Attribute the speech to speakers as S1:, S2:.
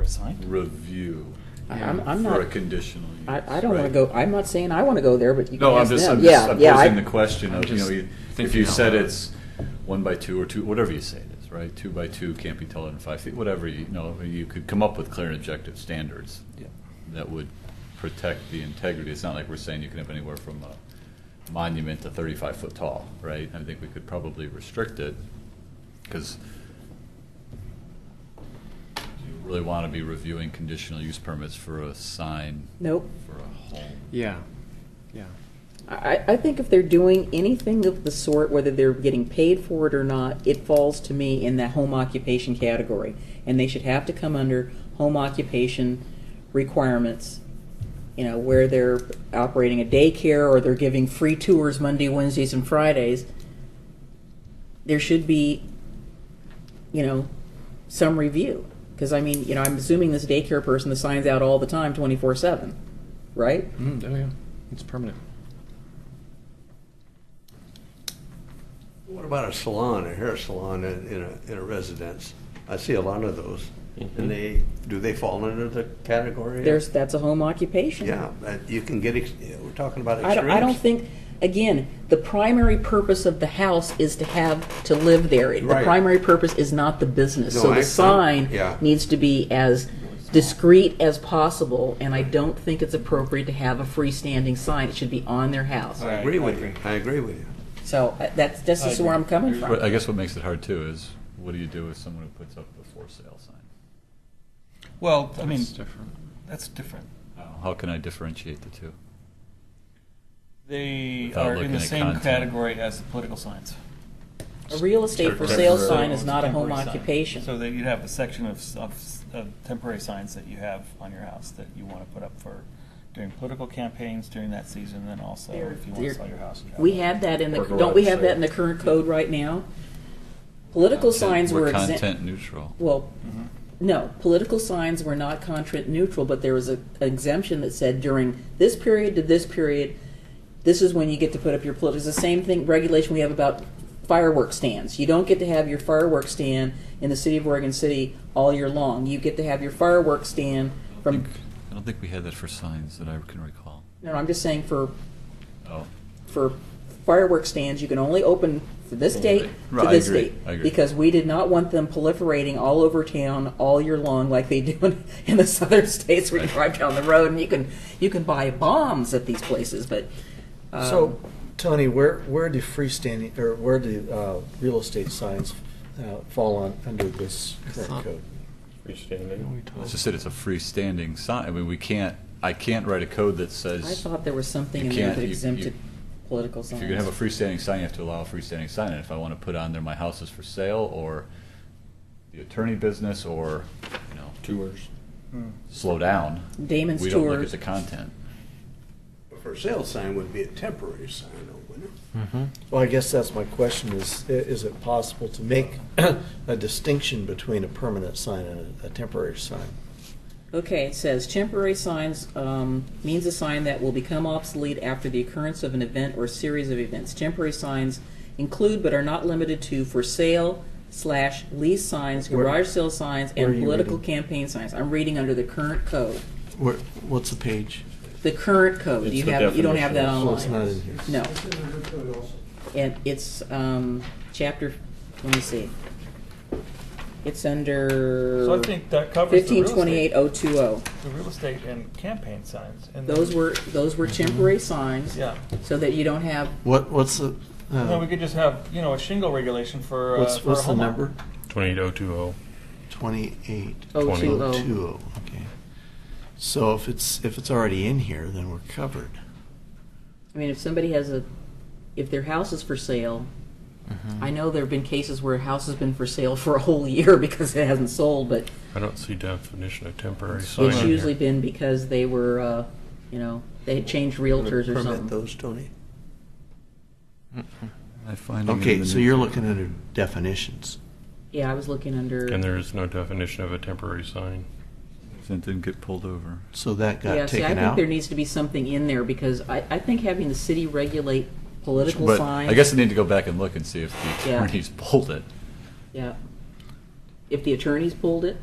S1: a sign?
S2: review
S3: I'm, I'm
S2: for a
S3: not,
S2: conditional use.
S3: I, I don't wanna
S2: right?
S3: go, I'm not saying I wanna go there, but you can
S2: No, I'm
S3: ask
S2: just,
S3: them.
S2: I'm
S3: Yeah,
S2: just I'm
S3: yeah, I-
S2: posing the question
S4: I'm
S2: of, you know,
S4: just
S2: you- if
S4: thinking
S2: you
S4: out
S2: said
S4: loud.
S2: it's one by two or two, whatever you say it is, right? Two by two can't be taller than five feet, whatever, you know, you could come up with clear and objective standards
S1: Yeah.
S2: that would protect the integrity. It's not like we're saying you can have anywhere from a monument to thirty-five foot tall, right? I think we could probably restrict it, because do you really want to be reviewing conditional use permits for a sign
S3: Nope.
S2: for a home?
S4: Yeah, yeah.
S3: I, I think if they're doing anything of the sort, whether they're getting paid for it or not, it falls to me in the home occupation category. And they should have to come under home occupation requirements, you know, where they're operating a daycare or they're giving free tours Monday, Wednesdays, and Fridays. There should be, you know, some review. Because, I mean, you know, I'm assuming this daycare person, the sign's out all the time, 24 7, right?
S4: Mm, oh yeah, it's permanent.
S5: What about a salon, a hair salon in, in a, in a residence? I see a lot of those. And they, do they fall under the category?
S3: Mm-hmm.
S5: of-
S3: There's, that's a home occupation.
S5: Yeah, but you can get, ex- we're talking about
S3: I
S5: extremes.
S3: don't, I don't think, again, the primary purpose of the house is to have, to live there. The
S5: Right.
S3: primary purpose is not the business.
S5: No,
S3: So
S5: I-
S3: the sign
S5: yeah.
S3: needs to be as discreet as possible, and I don't think it's appropriate to have a freestanding sign. It should be on their house.
S5: I agree with you, I agree with you.
S3: So uh, that's, that's
S1: I
S3: just where
S1: agree.
S3: I'm coming
S2: But
S3: from.
S2: I guess what makes it hard too is, what do you do with someone who puts up a for sale sign?
S1: Well, I mean,
S4: It's different.
S1: that's different.
S2: How- How can I differentiate the two?
S1: They
S2: Without
S1: are in
S2: looking
S1: the
S2: at
S1: same
S2: content.
S1: category as the political signs.
S3: A real estate for sale
S2: Temporary.
S3: sign is not a home
S1: Temporary sign. So
S3: occupation.
S1: that you'd have a section of, s- of, s- of temporary signs that you have on your house that you want to put up for during political campaigns during that season, then also
S3: They're-
S1: if you want to
S3: they're-
S1: sell your house. and travel.
S3: We have that in the,
S2: Or
S3: don't we
S2: garage
S3: have that
S2: sale.
S3: in the current code right now? Political
S2: Content-
S3: signs were exempt.
S2: Content neutral.
S3: Well,
S1: Mm-hmm.
S3: no, political signs were not contract neutral, but there was a, an exemption that said during this period to this period, this is when you get to put up your political. It's the same thing regulation we have about fireworks stands. You don't get to have your fireworks stand in the city of Oregon City all year long. You get to have your fireworks stand
S2: I
S3: from.
S2: think- I don't think we had that for signs that I can recall.
S3: No, I'm just saying for
S2: Oh,
S3: for fireworks stands, you can only open for this date
S2: Right,
S3: to
S2: I
S3: this
S2: agree,
S3: date.
S2: I agree.
S3: Because we did not want them proliferating all over town all year long like they do in, in the southern states where you
S2: Right.
S3: drive down the road and you can, you can buy bombs at these places, but. um,
S6: So, Tony, where, where do freestanding, or where do uh, real estate signs uh, fall on, under this current code?
S2: that's just it, it's a freestanding sign. I mean, we can't, I can't write a code that
S3: I
S2: says,
S3: thought there was something
S2: You
S3: in there
S2: can't-
S3: that
S2: you- you-
S3: exempted political
S2: if
S3: signs.
S2: you're gonna have a freestanding sign, you have to allow a freestanding sign. And if I wanna put on there, my house is for sale, or the attorney business, or, you know,
S4: Tours.
S1: Hmm.
S2: slow down.
S3: Damon's
S2: We don't look at
S3: Tours.
S2: the content.
S5: For sale sign would be a temporary sign, though, wouldn't it?
S6: Well, I guess that's my question, is, i- is it possible to make a distinction between a permanent sign and a a temporary sign?
S3: Okay, it says temporary signs um, means a sign that will become obsolete after the occurrence of an event or series of events. Temporary signs include but are not limited to for sale slash lease signs,
S6: Where-
S3: garage sale signs,
S6: where are
S3: and
S6: you
S3: political
S6: reading?
S3: campaign signs. I'm reading under the current code.
S6: Where, what's the page?
S3: The current code. Do you have you don't have that
S6: Oh, it's
S3: online?
S6: not in here.
S3: No, and it's um, chapter. Let me see. It's under
S1: So I think that covers the real
S3: fifteen
S1: estate-
S3: twenty eight oh two oh.
S1: The real estate and campaign signs. and
S3: Those
S1: then-
S3: were those were temporary signs.
S1: Yeah.
S3: so that you don't have,
S6: What, what's the,
S1: And then we
S6: uh,
S1: could just have, you know, a shingle regulation for, uh,
S6: what's,
S1: for a
S6: what's the
S1: homeowner.
S6: number?
S7: 28020.
S6: Twenty-eight.
S3: Oh,
S7: Twenty.
S3: two, oh.
S6: Two oh, okay. So if it's, if it's already in here, then we're covered.
S3: I mean, if somebody has a, if their house is for sale, I know there have been cases where a house has been for sale for a whole year because it hasn't sold, but
S7: I don't see definition of temporary sign
S3: it's
S7: in
S3: usually
S7: here.
S3: been because they were, uh, you know, they had changed realtors or
S5: Permit
S3: something.
S5: those, Tony?
S2: I find them in
S6: Okay,
S2: the
S6: so
S2: new-
S6: you're looking under definitions.
S3: Yeah, I was looking
S7: And
S3: under,
S7: there is no definition of a temporary sign.
S2: It didn't get pulled over.
S6: So that got
S3: yeah, see, I
S6: taken
S3: think
S6: out.
S3: there needs to be something in there because I, I think having the city regulate political
S2: But
S3: signs.
S2: I guess I need to go back and look and see if the
S3: Yeah.
S2: attorneys pulled it.
S3: Yeah. If the attorneys pulled it,